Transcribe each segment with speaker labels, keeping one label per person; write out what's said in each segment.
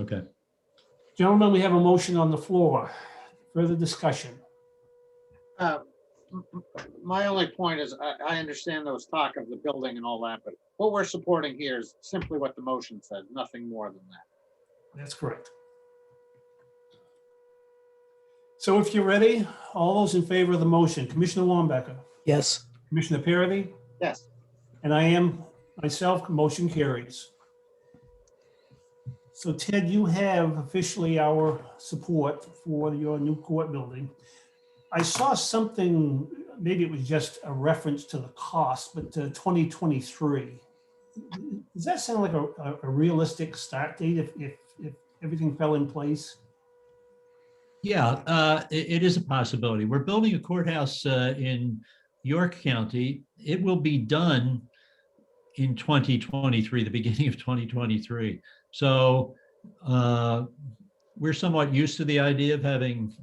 Speaker 1: Okay,
Speaker 2: Gentlemen, we have a motion on the floor. Further discussion.
Speaker 3: Uh, m- m- My only point is, I, I understand there was talk of the building and all that, but what we're supporting here is simply what the motion says, nothing more than that.
Speaker 2: That's correct. So if you're ready, all those in favor of the motion, Commissioner Wambacher,
Speaker 4: Yes,
Speaker 2: Commissioner Parity,
Speaker 3: Yes,
Speaker 2: and I am myself, motion carries. So Ted, you have officially our support for your new court building. I saw something, maybe it was just a reference to the cost, but uh, 2023. Does that sound like a, a- a realistic start date if, if, if everything fell in place?
Speaker 1: yeah, uh, i- it is a possibility. We're building a courthouse uh, in York County. It will be done in 2023, the beginning of 2023. So uh, we're somewhat used to the idea of having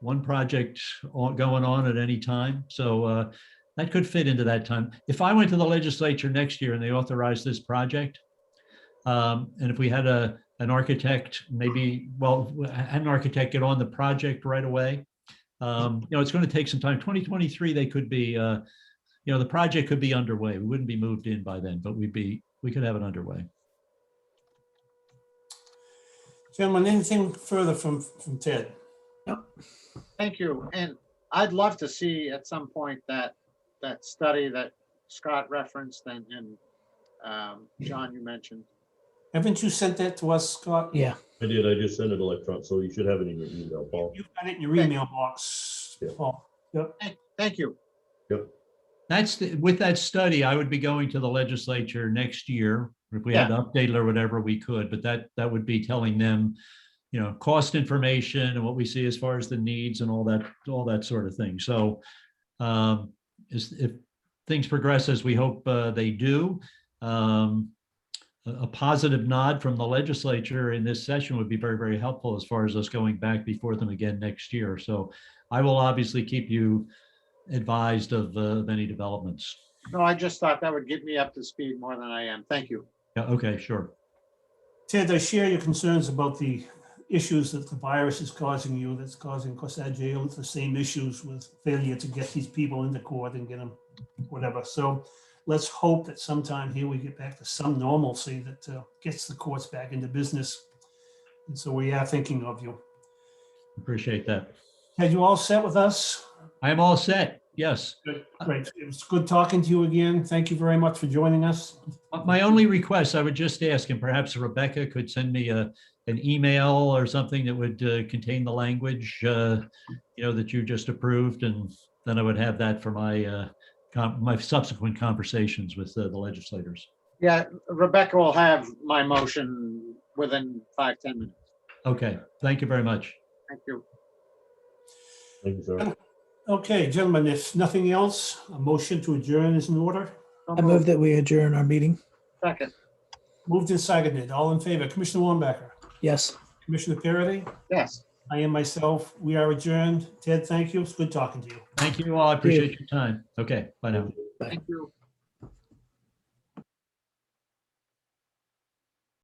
Speaker 1: one project on- going on at any time. So uh, that could fit into that time. If I went to the legislature next year and they authorized this project, um, and if we had a, an architect, maybe, well, w- had an architect get on the project right away. Um, you know, it's going to take some time. 2023, they could be, uh, you know, the project could be underway. We wouldn't be moved in by then, but we'd be, we could have it underway.
Speaker 2: Gentlemen, anything further from, from Ted?
Speaker 3: thank you. And I'd love to see at some point that, that study that Scott referenced and, and um, John, you mentioned.
Speaker 2: Haven't you sent that to us, Scott?
Speaker 4: yeah.
Speaker 5: I did, I just sent it electron, so you should have it in your email, Paul.
Speaker 2: You've got it in your email box,
Speaker 5: Yeah.
Speaker 2: Paul.
Speaker 3: Thank- Thank you.
Speaker 1: That's, the- with that study, I would be going to the legislature next year. If we had to update it or whatever, we could, but that, that would be telling them, you know, cost information and what we see as far as the needs and all that, all that sort of thing. So um, is, if things progress as we hope uh, they do, um, a, a positive nod from the legislature in this session would be very, very helpful as far as us going back before them again next year. So I will obviously keep you advised of, uh, of any developments.
Speaker 3: No, I just thought that would get me up to speed more than I am. Thank you.
Speaker 1: Yeah, okay, sure.
Speaker 2: Ted, I share your concerns about the issues that the virus is causing you, that's causing Corsad Jail, it's the same issues with failure to get these people into court and get them, whatever. So let's hope that sometime here we get back to some normalcy that uh, gets the courts back into business. And so we are thinking of you.
Speaker 1: Appreciate that.
Speaker 2: Ted, you all set with us?
Speaker 1: I am all set. Yes.
Speaker 2: Great. It was good talking to you again. Thank you very much for joining us.
Speaker 1: Uh, My only request, I would just ask, and perhaps Rebecca could send me a, an email or something that would uh, contain the language, uh, you know, that you just approved, and then I would have that for my, uh, com- my subsequent conversations with uh, the legislators.
Speaker 3: Yeah, Rebecca will have my motion within five ten minutes.
Speaker 1: Okay, thank you very much.
Speaker 3: Thank you.
Speaker 5: Thank you, sir.
Speaker 2: Okay, gentlemen, if nothing else, a motion to adjourn is in order.
Speaker 3: So
Speaker 4: I move that we adjourn our meeting.
Speaker 3: Second,
Speaker 2: Moved and seconded. All in favor, Commissioner Wambacher,
Speaker 4: Yes.
Speaker 2: Commissioner Parity,
Speaker 3: yes.
Speaker 2: I am myself. We are adjourned. Ted, thank you. It's good talking to you.
Speaker 1: Thank you all. I appreciate your time. Okay, bye now.
Speaker 3: Thank you.